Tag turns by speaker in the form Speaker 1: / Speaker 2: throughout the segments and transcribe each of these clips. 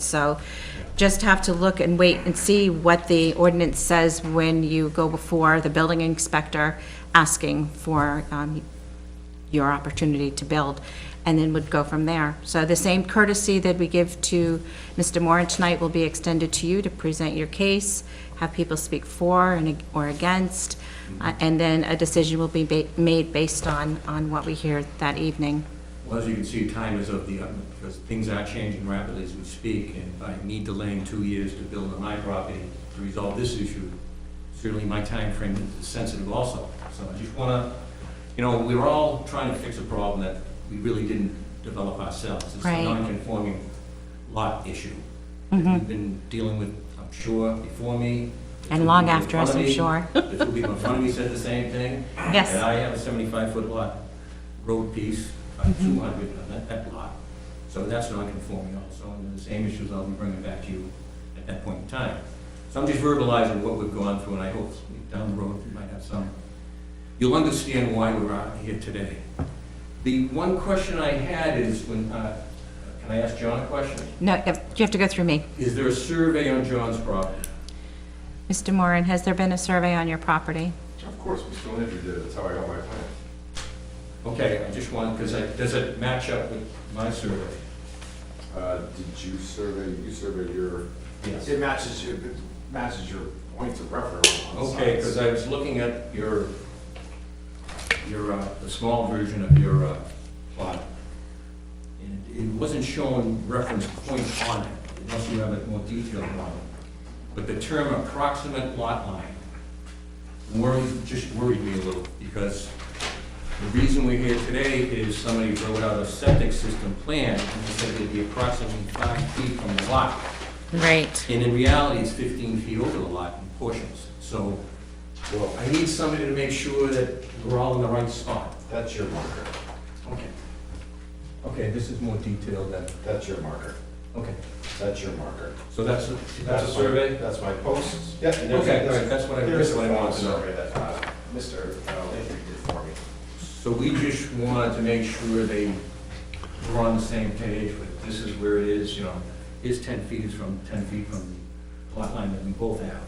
Speaker 1: So just have to look and wait and see what the ordinance says when you go before the building inspector asking for um, your opportunity to build, and then would go from there. So the same courtesy that we give to Mr. Moran tonight will be extended to you to present your case, have people speak for and ag- or against, uh, and then a decision will be ba- made based on, on what we hear that evening.
Speaker 2: Well, as you can see, time is of the utmost, because things are changing rapidly as we speak, and by me delaying two years to build on my property to resolve this issue, certainly my time frame is sensitive also. So I just wanna, you know, we we're all trying to fix a problem that we really didn't develop ourselves. It's
Speaker 1: Right. Mm-hmm.
Speaker 2: a non-conforming lot issue. that We've been dealing with, I'm sure, before me. the
Speaker 1: And
Speaker 2: two
Speaker 1: long
Speaker 2: people in
Speaker 1: after us,
Speaker 2: front of
Speaker 1: I'm
Speaker 2: me,
Speaker 1: sure.
Speaker 2: The two people in front of me said the same thing.
Speaker 1: Yes.
Speaker 2: And I have a 75-foot lot, road piece, uh, 200, on that, that lot. So that's non-conforming also, and the same issues I'll be bringing back to you at that point in time. So I'm just verbalizing what we've gone through, and I hope down the road we might have some. You'll understand why we're out here today. The one question I had is when, uh, can I ask John a question?
Speaker 1: No, you have- you have to go through me.
Speaker 2: Is there a survey on John's property?
Speaker 1: Mr. Moran, has there been a survey on your property?
Speaker 3: Of course, Mr. Landry did it, that's how I got my plan.
Speaker 2: Okay, I just wanted, because I, does it match up with my survey?
Speaker 3: Uh, Did you survey, you surveyed your?
Speaker 2: Yes.
Speaker 3: It matches, your- it matches your points of reference on the
Speaker 2: Okay, because
Speaker 3: sides.
Speaker 2: I was looking at your, your, uh, the small version of your uh, plot. And it wasn't showing reference points on it, unless you have a more detailed model. But the term approximate lot line worried, just worried me a little, because the reason we're here today is somebody wrote out a septic system plan, and they said it'd be approximately five feet from the lot.
Speaker 1: Right.
Speaker 2: And in reality, it's 15 feet over the lot in portions. So
Speaker 3: Well,
Speaker 2: I need somebody to make sure that we're all in the right spot.
Speaker 3: that's your marker,
Speaker 2: Okay. Okay, this is more detailed than,
Speaker 3: that's your marker,
Speaker 2: okay.
Speaker 3: that's your marker.
Speaker 2: So that's, a- that's a
Speaker 3: my-
Speaker 2: survey?
Speaker 3: That's my posts. Yeah. and there's-
Speaker 2: Okay, all right, that's what I-
Speaker 3: There's
Speaker 2: that's
Speaker 3: a
Speaker 2: what I
Speaker 3: final
Speaker 2: wanted to know.
Speaker 3: survey that uh, Mr. Landry did for me.
Speaker 2: So we just wanted to make sure they were on the same page with, this is where it is, you know, is 10 feet is from, 10 feet from the lot line that we both have.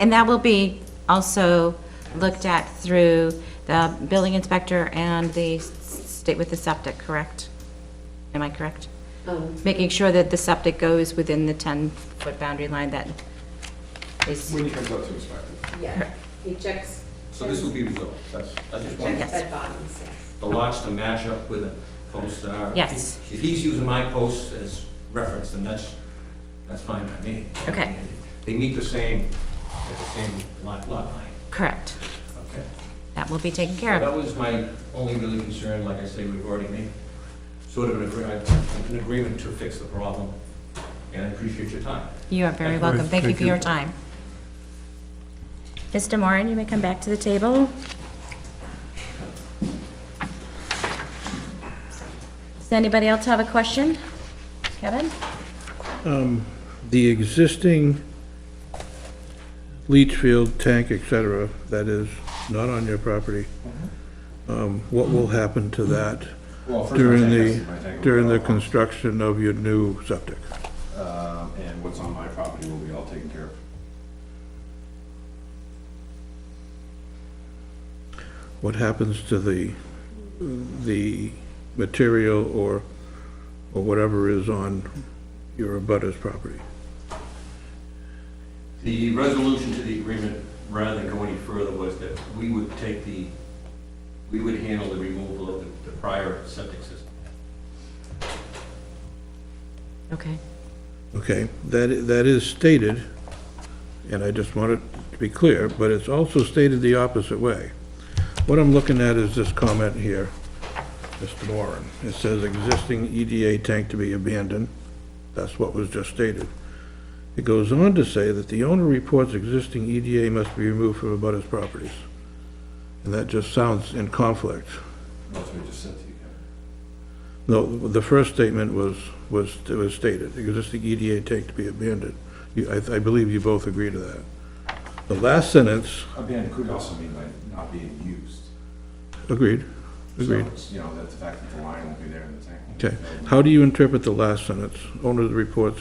Speaker 1: And that will be also looked at through the building inspector and the s- state with the septic, correct? Am I correct?
Speaker 4: Um,
Speaker 1: Making sure that the septic goes within the 10-foot boundary line that is,
Speaker 3: When he comes up to inspect it.
Speaker 4: Yeah, he checks,
Speaker 2: So this will be resolved, that's, I just wanted
Speaker 4: checks bed bottoms, yes.
Speaker 2: the lots to match up with a post are.
Speaker 1: Yes.
Speaker 2: If he's using my post as reference, then that's, that's fine by me.
Speaker 1: Okay.
Speaker 2: They meet the same, at the same lot, lot line,
Speaker 1: correct.
Speaker 2: okay?
Speaker 1: That will be taken care of.
Speaker 2: That was my only really concern, like I say, we've already made sort of an agreement, an agreement to fix the problem, and I appreciate your time.
Speaker 1: You are very welcome. Thank you for your time. Mr. Moran, you may come back to the table. Does anybody else have a question? Kevin?
Speaker 5: the existing leach field, tank, et cetera, that is not on your property, um, what will happen to that
Speaker 3: Well, first my
Speaker 5: during
Speaker 3: tank has
Speaker 5: the,
Speaker 3: to be my tank.
Speaker 5: during the construction of your new septic?
Speaker 3: Um, And what's on my property will be all taken care of.
Speaker 5: What happens to the, the material or, or whatever is on your abutter's property?
Speaker 2: The resolution to the agreement, rather than go any further, was that we would take the, we would handle the removal of the- the prior septic system.
Speaker 1: Okay.
Speaker 5: Okay, that, i- that is stated, and I just want it to be clear, but it's also stated the opposite way. What I'm looking at is this comment here, Mr. Warren. It says existing EDA tank to be abandoned. That's what was just stated. It goes on to say that the owner reports existing EDA must be removed from abutters properties. And that just sounds in conflict.
Speaker 3: That's what I just said to you, Kevin.
Speaker 5: No, the first statement was, was, it was stated, existing E EDA tank to be abandoned. You, I, I believe you both agree to that. The last sentence,
Speaker 3: Abandoned could also mean like not being used.
Speaker 5: agreed, agreed.
Speaker 3: So it's, You know, that the fact that the line won't be there in the tank. won't be
Speaker 5: Okay,
Speaker 3: filled.
Speaker 5: how do you interpret the last sentence? Owner of the reports